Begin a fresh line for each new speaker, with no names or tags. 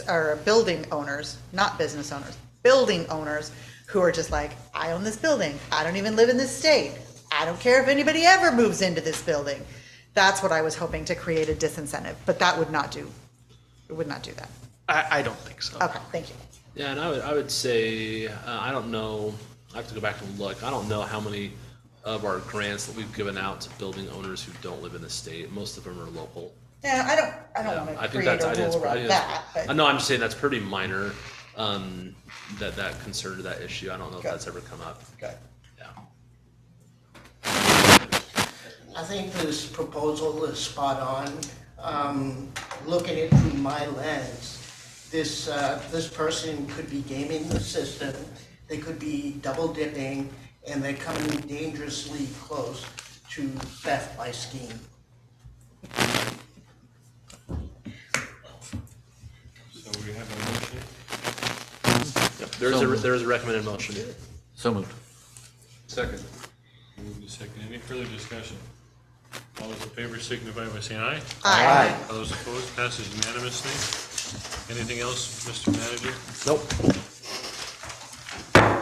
are building owners, not business owners, building owners who are just like, I own this building. I don't even live in this state. I don't care if anybody ever moves into this building. That's what I was hoping to create a disincentive, but that would not do, it would not do that.
I, I don't think so.
Okay, thank you.
Yeah, and I would, I would say, uh, I don't know, I have to go back and look. I don't know how many of our grants that we've given out to building owners who don't live in the state. Most of them are local.
Yeah, I don't, I don't
I
want to
think
create
that's, I
a
think that's,
rule
I
around
think
that,
that's, I
but
know, I'm just saying that's pretty minor, um, that, that concern to that issue. I don't know if
Okay.
that's ever come up.
Okay.
Yeah.
I think this proposal is spot on. Um, look at it through my lens. This, uh, this person could be gaming the system, they could be double dipping, and they're coming dangerously close to theft by scheme.
So we have a motion.
Yep. There's a, there's a recommended motion.
So moved.
Second. Move to second. Any further discussion? All those in favor signify by saying aye.
I,
All those opposed, passes unanimously. Anything else, Mr. Manager?
Nope.